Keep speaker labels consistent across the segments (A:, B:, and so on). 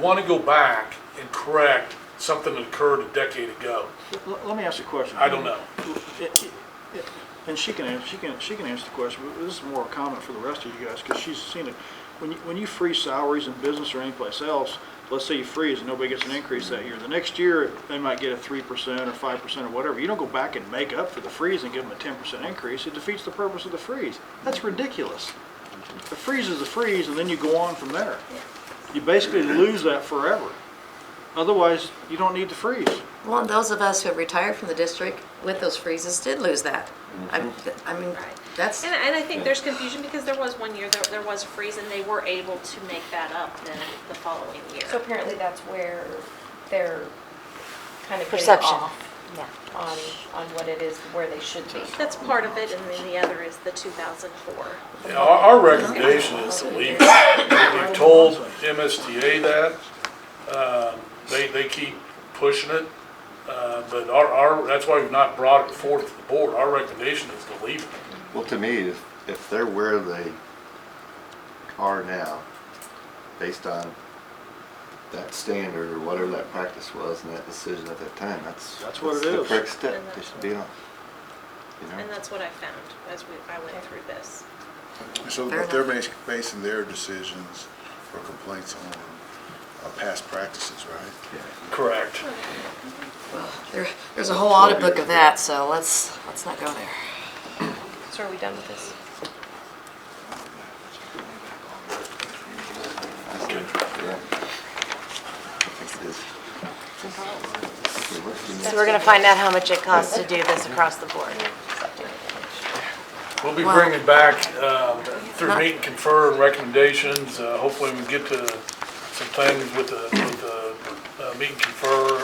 A: want to go back and correct something that occurred a decade ago.
B: L- Let me ask you a question.
A: I don't know.
B: It- it- it- And she can, ans- she can, she can answer the question, but this is more a comment for the rest of you guys, because she's seen it. When you, when you freeze salaries in business or anyplace else, let's say you freeze and nobody gets an increase that year, the next year, they might get a three percent or five percent or whatever. You don't go back and make up for the freeze and give them a ten percent increase, it defeats the purpose of the freeze. That's ridiculous. The freeze is a freeze, and then you go on from there. You basically lose that forever. Otherwise, you don't need to freeze.
C: Well, and those of us who have retired from the district with those freezes did lose that. I'm- I mean,
D: Right.
C: that's,
D: And, and I think there's confusion because there was one year, there, there was a freeze and they were able to make that up then the following year.
E: So apparently that's where they're kind of getting
F: Perception.
E: off
F: Yeah.
E: on, on what it is, where they should be.
D: That's part of it and then the other is the 2004.
A: Now, Our, our recommendation is to leave. it. We've told MSTA that, um, they, they keep pushing it. Uh, but our, our, that's why we've not brought it forth to the board. Our recommendation is to leave it.
G: Well, to me, if, if they're where they are now, based on that standard or whatever that practice was and that decision at that time, that's.
B: That's what it
G: the
B: is.
G: Correct step,
D: And
G: they
D: that's
G: should be on. You know?
D: And that's what I found as we, I went through this.
H: So
C: Fair
H: if they're
C: enough.
H: bas- basing their decisions or complaints on uh, past practices, right?
A: Correct.
C: there- there's a whole audit book of that, so let's, let's not go there.
E: So are we done with this?
G: Yeah. I think it is. Okay, what's the
F: So
G: next-
F: we're gonna find out how much it costs to do this across the board.
A: We'll be
C: Wow.
A: bringing back, um, through meet and confer and recommendations, uh, hopefully we can get to some things with the, with the, uh, meet and confer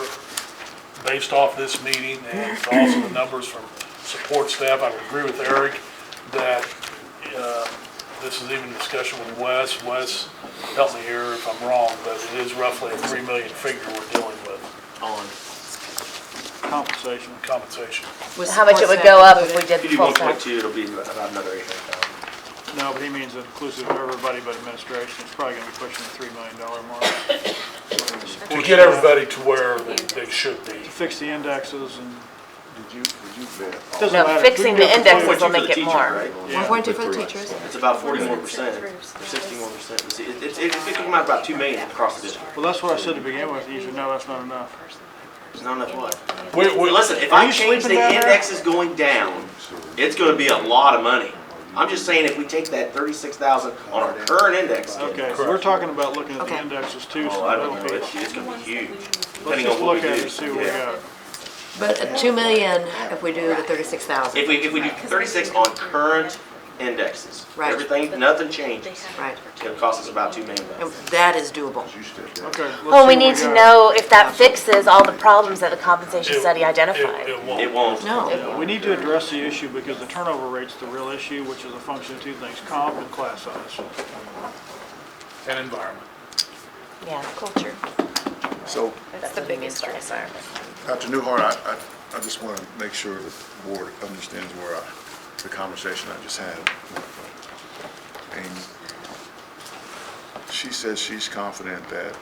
A: based off this meeting and also the numbers from support staff. I would agree with Eric that, uh, this is even discussion with Wes. Wes, help me here if I'm wrong, but it is roughly a three million figure we're dealing with
B: compensation.
A: compensation.
C: Was-
F: How much it
C: was
F: would
C: that
F: go up if we
C: included?
F: did
I: If
F: the
I: you do
F: full
I: one
F: time?
I: point two, it'll be about another eight hundred thousand.
B: No, but he means inclusive of everybody but administration, it's probably gonna be pushing the three million dollar mark.
A: To get everybody to where they they should be.
B: Fix the indexes and,
H: Did you, did you vet all
B: doesn't
F: No,
B: matter.
F: fixing the indexes
B: index.
F: will make it more.
C: One point two for the teachers.
I: It's about forty-four percent, or sixty-one percent. It's, it's, it's gonna come out about two million across the district.
B: Well, that's what I said to begin with, you should know that's not enough.
I: It's not enough what?
A: We, we,
I: Well, listen, if
B: Are
I: I
B: you
I: change
B: sleeping
I: the
B: down there?
I: index is going down, it's gonna be a lot of money. I'm just saying if we take that thirty-six thousand on our current index.
B: Okay, so we're talking about looking at the
C: Okay.
B: indexes too,
I: Oh,
B: so
I: I
B: that'll
I: don't know,
B: be-
I: it's, it's gonna be huge,
B: let's
I: depending
B: just
I: on what
B: look
I: we do.
B: at it and see what we
I: Yeah.
B: got.
C: But at two million, if we do the thirty-six thousand,
I: If we, if we do thirty-six on current indexes,
C: Right.
I: everything, nothing changes,
C: right,
I: it'll cost us about two million bucks.
C: and that is doable.
H: you said that?
B: Okay. let's
F: Well,
B: see
F: we
B: what
F: need to
B: got.
F: know if that fixes all the problems that the compensation
A: It-
F: study
A: It,
F: identified.
A: it won't.
I: It won't.
C: No,
B: Yeah, We need to address the issue because the turnover rate's the real issue, which is a function of two things, comp and class size.
A: And environment.
F: Yeah, culture.
H: So,
E: That's the biggest concern.
H: Dr. Newhart, I, I- I just want to make sure that the board understands where I, the conversation I just had. And she says she's confident that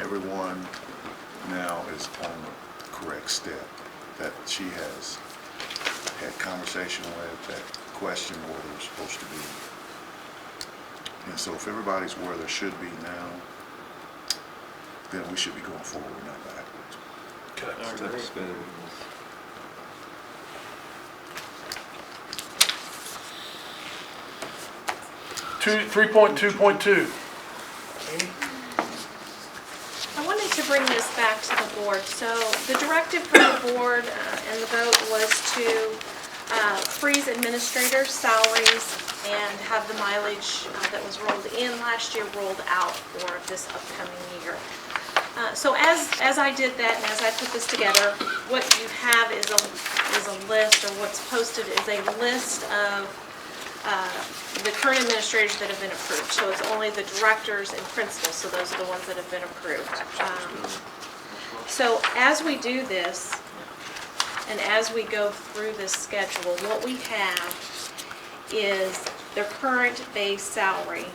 H: everyone now is on the correct step, that she has had conversation with, that question where they're supposed to be. And so if everybody's where they should be now, then we should be going forward, not backwards.
A: Okay.
G: That's been-
A: Two, three point two point two.
D: I wanted to bring this back to the board. So the directive from the board uh, and the vote was to uh, freeze administrator salaries and have the mileage uh, that was rolled in last year rolled out for this upcoming year. Uh, So as, as I did that and as I put this together, what you have is a, is a list, or what's posted is a list of the current administrators that have been approved. So it's only the directors and principals, so those are the ones that have been approved. Um, So as we do this, and as we go through this schedule, what we have is their current base salary